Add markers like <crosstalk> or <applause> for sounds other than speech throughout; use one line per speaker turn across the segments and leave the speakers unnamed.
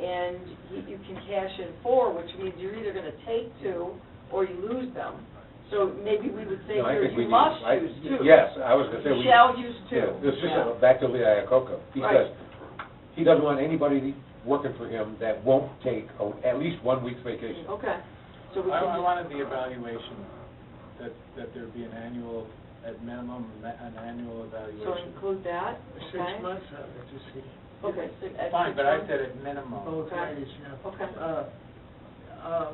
and you- you can cash in four, which means you're either gonna take two or you lose them. So maybe we would say
No, I
here,
think we
you
need-
must
I-
use two.
Yes, I was gonna say.
You
we-
shall use
Yeah,
two.
This is
Yeah.
back to Lee Iacocca. He
Right.
says, he doesn't want anybody working for him that won't take a- at least one week's vacation.
Okay, so we
I, I
can,
wanted the evaluation, that, that there be an annual, at minimum, ma- an annual
so
evaluation.
include that,
Six
okay?
months out of it, just see.
Okay, six, at
Fine,
six
but I
months.
said at minimum.
Both ways, yeah.
<laughs>
Okay.
Uh, uh,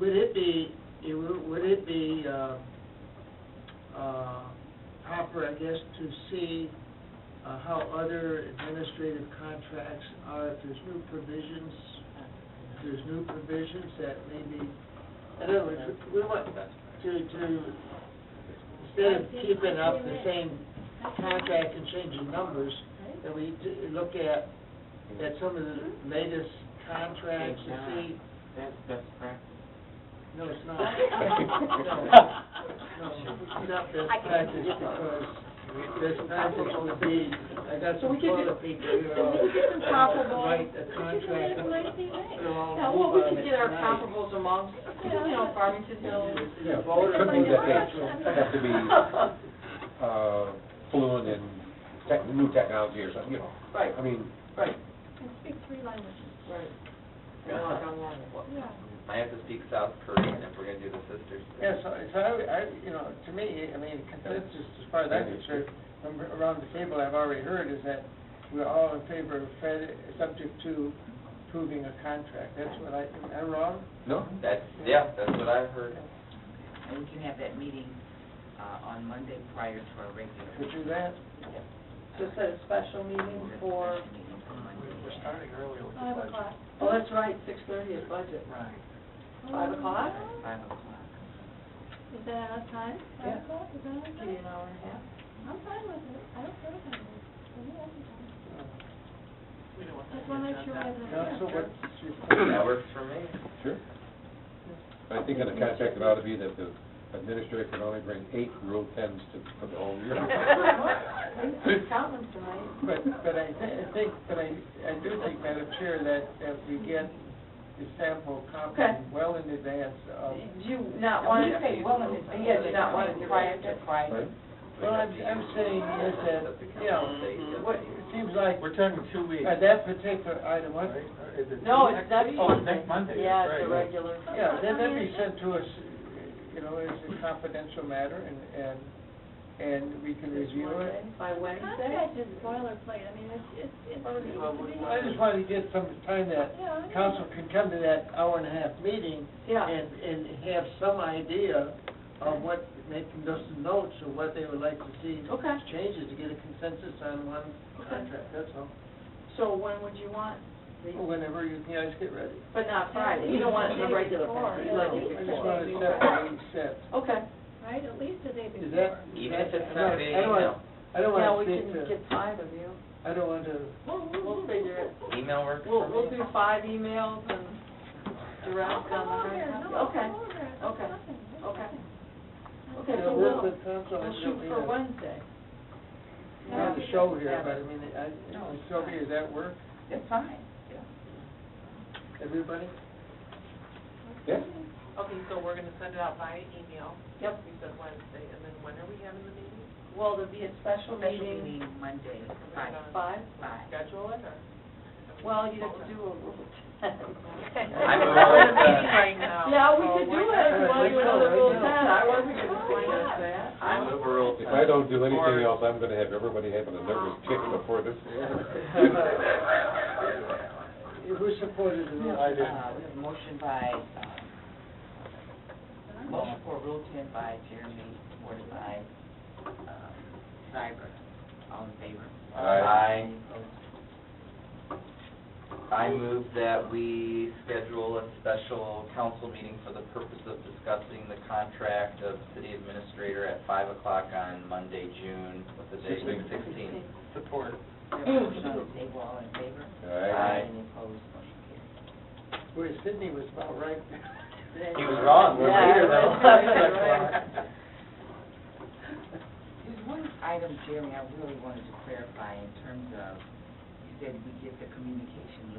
Would it be, it wo- would it be uh, uh, proper, I guess, to see uh, how other administrative contracts are, if there's new provisions, if there's new provisions that maybe, in other words, we want to, to, instead of keeping up the same contract and changing numbers, that we d- look at, at some of
Hmm?
the latest contracts and see,
That's best practice.
no, it's
<laughs>
not. No, no, it's
I
not best practice because best practice would be, I got
So we
some
could
Florida
do-
people who
so we could do some
uh,
comparable-
write a
Which is what
contract.
everybody thinks.
they're all
Yeah, well, we
moved
could
on it
get our
tonight.
comparables amongst, you know, Farmington
<laughs>
Hills,
Yeah, it
Voted
could be
by
that
the
they have to be uh, fluent in tech- new technology or something, you know.
right,
I mean,
right,
And speak three languages.
<laughs> right. And like online.
Yeah.
have to speak South Korean if we're gonna do the sisters.
Yeah, so, so I, I, you know, to me, I mean, consensus, as far as I'm concerned, from around the table I've already heard is that we're all in favor of Fed, subject to approving a contract. That's what I, am I wrong?
no,
That's, yeah, that's what I heard.
And we can have that meeting uh, on Monday prior to our regular.
Could do that?
Just had a special meeting for,
Special meeting for Monday.
We're starting early with the
Five
budget.
o'clock.
oh, that's right, six thirty is budget.
Right.
Five o'clock?
Five o'clock.
Is that enough time?
Yeah.
Five o'clock, is that enough
Give you
time?
an hour and a half.
I'm fine with it, I don't care what time it is, for me, I can time. Just wanna make sure we have enough
Council,
time.
what's your
That works for me.
sure. I think in the contract, it ought to be that the administrator can only bring eight Rule 10s to, for the whole year.
<laughs> He's counting tonight.
But, but I thi- I think, but I, I do think, Madam Chair, that, that we get the sample copy
Okay.
well in advance of.
Do you not want to pay well in advance? Yeah, do not want to prior to
Right?
Well, I'm, I'm saying is that, you know, what, it seems like
We're talking two weeks,
Uh,
right?
that particular item, what,
Or is it
No,
two
it's
next
next
week?
Monday.
Oh, next Monday, that's
Yeah, it's a
right.
regular.
yeah, then that'd be sent to us, you know, as a confidential matter, and, and, and we can
This
review
Monday,
it.
By Wednesday?
Contract is boilerplate, I mean, it's, it's, it's supposed to be.
I just wanted to get some time that
Yeah, I know.
council can come to that hour and a half meeting
Yeah,
and, and have some idea of what, making those notes of what they would like to see
Okay.
changes, to get a consensus on one contract, that's all.
so when would you want? the-
Whenever you guys get ready.
But not Friday, you don't want it in the regular. package. You
No,
like
I
it
just
before.
wanted to set what we set.
Okay,
Right, at least a day
Is
before.
that?
Even if it's
I don't-
not via
I don't wanna-
email.
I don't
now we
want to speak
can
to,
get five of you.
I don't want to,
We'll figure it.
Email works
We'll,
for
we'll
me.
do five emails and
I'll
direct
come
on
over
the
there,
very
no,
copy.
I'll
Okay,
come over there,
okay,
there's nothing, there's
okay.
nothing.
okay,
you
so
know, work
we'll,
with council.
we'll
I
shoot
don't mean
for
to-
Wednesday.
Not the show here, but I mean, I, Sylvia, does that work,
That's fine.
everybody?
Yeah.
Okay, so we're gonna send it out by email,
Yep,
we said Wednesday, and then when are we having the meeting?
well, there'll be a special
Special
meeting,
meeting Monday, five,
five.
five.
Schedule it, or?
Well, you have to do a rule ten. <laughs>
I'm aware of <laughs> that.
Right now.
Yeah, we could do it, if you want to do another rule
Right
ten,
now.
I wasn't gonna say that.
I move a rule.
If I don't do anything else, I'm gonna have everybody having a nervous tick before this.
<laughs> Who supported
We
it?
have,
I did.
uh, we have a motion by, um, motion for Rule 10 by Jeremy, supported by um, Cybert. All in favor?
Aye.
I, I move that we schedule a special council meeting for the purpose of discussing the contract of city administrator at five o'clock on Monday, June, what's the date?
Sixteenth.
Sixteenth.
Support.
We have a motion on the table, all in favor?
Aye.
Any opposed, motion carries.
Where Sydney was about right.
He was wrong, we're later
<laughs>
<laughs> than eleven o'clock.
There's one item, Jeremy, I really wanted to clarify in terms of, you said we get the communication